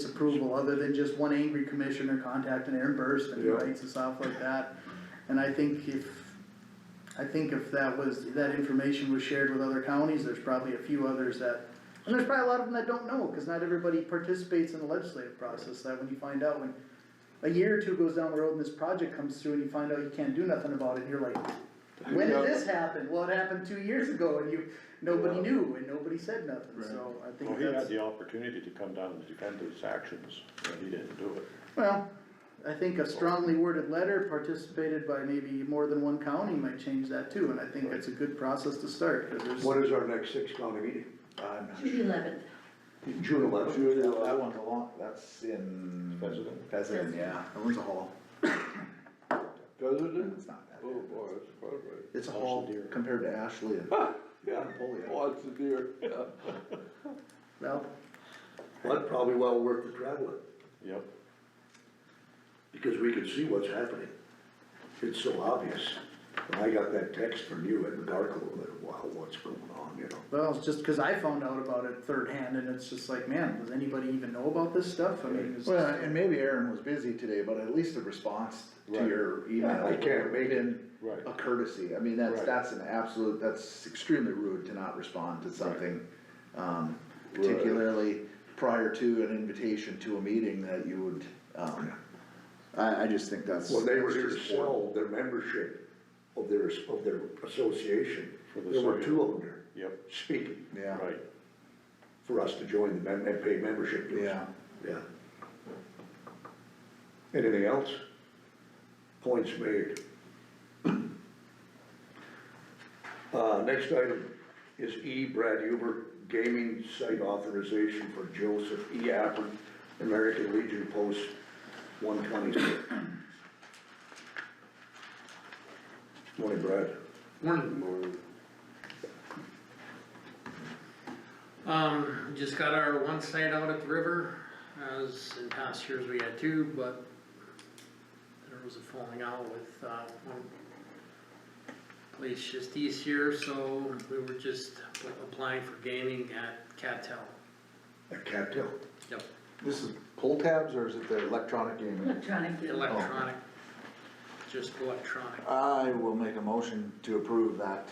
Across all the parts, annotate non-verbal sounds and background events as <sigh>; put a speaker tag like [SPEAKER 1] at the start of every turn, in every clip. [SPEAKER 1] disapproval, other than just one angry commissioner contacting Aaron Burst and
[SPEAKER 2] Yeah.
[SPEAKER 1] writes and stuff like that. And I think if, I think if that was, that information was shared with other counties, there's probably a few others that, and there's probably a lot of them that don't know, cause not everybody participates in the legislative process, that when you find out, when a year or two goes down the road and this project comes through and you find out you can't do nothing about it, you're like, when did this happen? Well, it happened two years ago and you, nobody knew and nobody said nothing, so I
[SPEAKER 3] Well,
[SPEAKER 1] think
[SPEAKER 3] he had
[SPEAKER 1] that's,
[SPEAKER 3] the opportunity to come down and defend his actions, and he didn't do it.
[SPEAKER 1] well, I think a strongly worded letter participated by maybe more than one county might change that too, and I think that's a good process to start, cause there's.
[SPEAKER 2] What is our next six county meeting?
[SPEAKER 4] Uh,
[SPEAKER 2] On
[SPEAKER 5] June eleventh,
[SPEAKER 2] June eleventh.
[SPEAKER 6] Sure, that that one's a long, that's in.
[SPEAKER 3] Pheasant.
[SPEAKER 6] Pheasant, yeah.
[SPEAKER 4] That one's a haul.
[SPEAKER 2] Does it?
[SPEAKER 6] It's not that bad.
[SPEAKER 2] boy, that's quite right.
[SPEAKER 4] It's a
[SPEAKER 3] How's the
[SPEAKER 4] haul
[SPEAKER 3] deer?
[SPEAKER 4] compared to Ashley and
[SPEAKER 2] Yeah,
[SPEAKER 4] Napoleon.
[SPEAKER 2] oh, it's a deer, yeah.
[SPEAKER 1] Well,
[SPEAKER 2] Well, probably well worth the traveling,
[SPEAKER 3] Yep.
[SPEAKER 2] because we can see what's happening. It's so obvious. When I got that text from you at McGarkle, that, wow, what's going on, you know?
[SPEAKER 1] well, it's just cause I found out about it third hand and it's just like, man, does anybody even know about this stuff? I mean, it's.
[SPEAKER 4] Well, and maybe Aaron was busy today, but at least the response to
[SPEAKER 3] Right.
[SPEAKER 4] your email.
[SPEAKER 2] I can't make it.
[SPEAKER 4] been
[SPEAKER 3] Right.
[SPEAKER 4] A courtesy, I mean, that's,
[SPEAKER 3] Right.
[SPEAKER 4] that's an absolute, that's extremely rude to not respond to something, um,
[SPEAKER 2] Right.
[SPEAKER 4] particularly prior to an invitation to a meeting that you would, um, I, I just think that's.
[SPEAKER 2] When they were
[SPEAKER 4] that's
[SPEAKER 2] here to
[SPEAKER 4] just
[SPEAKER 2] sell their membership of their, of their association,
[SPEAKER 3] For the
[SPEAKER 2] there were
[SPEAKER 3] sale.
[SPEAKER 2] two of them there
[SPEAKER 3] Yep,
[SPEAKER 2] speaking
[SPEAKER 4] poor. Yeah,
[SPEAKER 3] right.
[SPEAKER 2] for us to join the mem- and pay membership dues.
[SPEAKER 4] yeah,
[SPEAKER 2] Yeah. Anything else? Points made. <clears throat> Uh, next item is E. Brad Huber, gaming site authorization for Joseph E. Appen, American Legion Post one twenty-six. Morning, Brad.
[SPEAKER 7] Morning. Um, just got our one site out at the river, as in past years we had two, but there was a falling out with, uh, one place just east here, so we were just applying for gaming at Cattell.
[SPEAKER 2] At Cattail.
[SPEAKER 7] Yep.
[SPEAKER 6] This is pull tabs or is it the electronic gaming?
[SPEAKER 5] electronic.
[SPEAKER 7] Electronic, just electronic.
[SPEAKER 4] I will make a motion to approve that,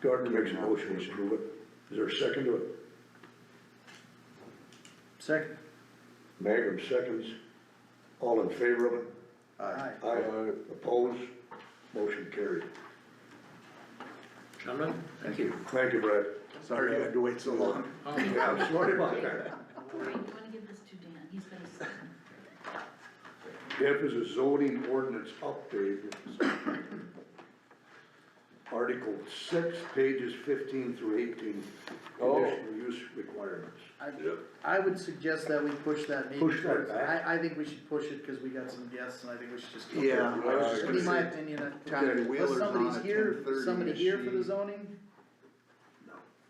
[SPEAKER 2] Gardner makes a motion to approve it. Is there a second to it?
[SPEAKER 1] Second,
[SPEAKER 2] Magrum seconds. All in favor of it?
[SPEAKER 1] alright,
[SPEAKER 2] Aye. Opposed? Motion carried.
[SPEAKER 7] Gentlemen, thank you.
[SPEAKER 2] Thank you, Brad.
[SPEAKER 4] sorry you had to wait so long.
[SPEAKER 7] Oh,
[SPEAKER 2] Yeah, I'm sorry about that.
[SPEAKER 5] Wait, you wanna give this to Dan, he's been asleep.
[SPEAKER 2] F is a zoning ordinance update. Article six, pages fifteen through eighteen,
[SPEAKER 6] Oh.
[SPEAKER 2] conditional use requirements.
[SPEAKER 1] I, I would suggest that we push that maybe.
[SPEAKER 2] Push that
[SPEAKER 1] towards-
[SPEAKER 2] back?
[SPEAKER 1] I, I think we should push it, cause we got some guests and I think we should just. keep it.
[SPEAKER 4] Yeah, I was just
[SPEAKER 1] That'd be
[SPEAKER 4] gonna
[SPEAKER 1] my
[SPEAKER 4] say,
[SPEAKER 1] opinion. I-
[SPEAKER 4] Tommy
[SPEAKER 1] Unless
[SPEAKER 4] Wheeler's on
[SPEAKER 1] somebody's
[SPEAKER 4] at
[SPEAKER 1] here,
[SPEAKER 4] 10:30,
[SPEAKER 1] somebody here for the
[SPEAKER 4] she-
[SPEAKER 1] zoning?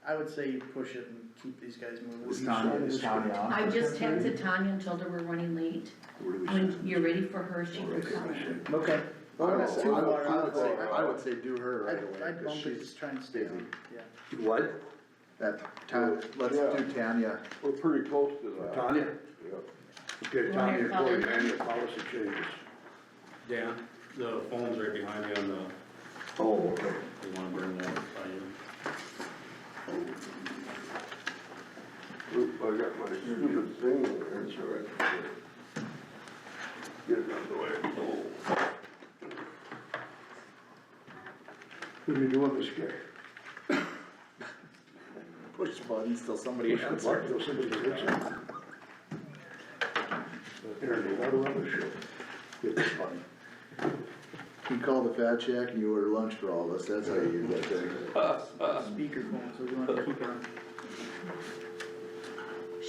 [SPEAKER 1] I would say you push it and keep these guys moving.
[SPEAKER 4] Is Tanya, is Tanya on?
[SPEAKER 5] I just texted Tanya and told her we're running late,
[SPEAKER 2] Where do we
[SPEAKER 5] when
[SPEAKER 2] stand?
[SPEAKER 5] you're ready for her, she can
[SPEAKER 2] Right,
[SPEAKER 5] come.
[SPEAKER 2] I said,
[SPEAKER 1] Okay.
[SPEAKER 4] Oh, I would,
[SPEAKER 1] That's
[SPEAKER 4] say-
[SPEAKER 1] too
[SPEAKER 4] I would,
[SPEAKER 1] far
[SPEAKER 4] I
[SPEAKER 1] out.
[SPEAKER 4] would say, I
[SPEAKER 1] I'd-
[SPEAKER 4] would say do her right away,
[SPEAKER 1] I'd
[SPEAKER 4] cause
[SPEAKER 1] bump it,
[SPEAKER 4] she's,
[SPEAKER 1] just try and stay
[SPEAKER 4] busy.
[SPEAKER 1] on, yeah.
[SPEAKER 6] Mm.
[SPEAKER 2] What?
[SPEAKER 4] that, Ta- let's do Tanya.
[SPEAKER 6] We're pretty close to that.
[SPEAKER 2] Tanya? Okay, Tanya,
[SPEAKER 5] Well,
[SPEAKER 2] go
[SPEAKER 5] I
[SPEAKER 2] ahead,
[SPEAKER 5] thought-
[SPEAKER 2] manual policy changes.
[SPEAKER 8] Dan, the phone's right behind me on the,
[SPEAKER 2] Oh, okay.
[SPEAKER 8] you wanna burn that by you?
[SPEAKER 2] Oop, I got my stupid thing there, it's all right. Get it out of the way. What are you doing this guy?
[SPEAKER 4] Push the buttons till somebody
[SPEAKER 2] It's
[SPEAKER 4] answers.
[SPEAKER 2] like those somebody hits him. Aaron, you gotta run the show. It's funny.
[SPEAKER 4] You call the fat check and you order lunch for all of us, that's how you do that thing.
[SPEAKER 1] Speakerphone, so we want to keep it on.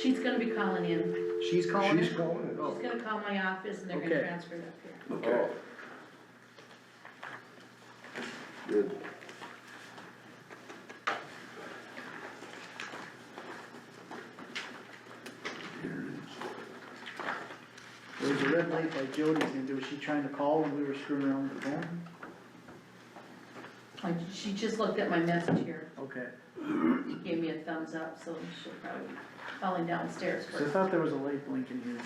[SPEAKER 5] She's gonna be calling in,
[SPEAKER 4] She's calling
[SPEAKER 2] She's calling it.
[SPEAKER 5] she's gonna call my office and they're gonna
[SPEAKER 1] Okay.
[SPEAKER 5] transfer it up here.
[SPEAKER 2] Okay. Good.
[SPEAKER 1] There was a red light by Jody's, and was she trying to call when we were screwing around with the phone?
[SPEAKER 5] Like, she just looked at my message here,
[SPEAKER 1] Okay,
[SPEAKER 5] she gave me a thumbs up, so she'll probably, be falling downstairs
[SPEAKER 1] 'Cause
[SPEAKER 5] first.
[SPEAKER 1] I thought there was a light blinking here.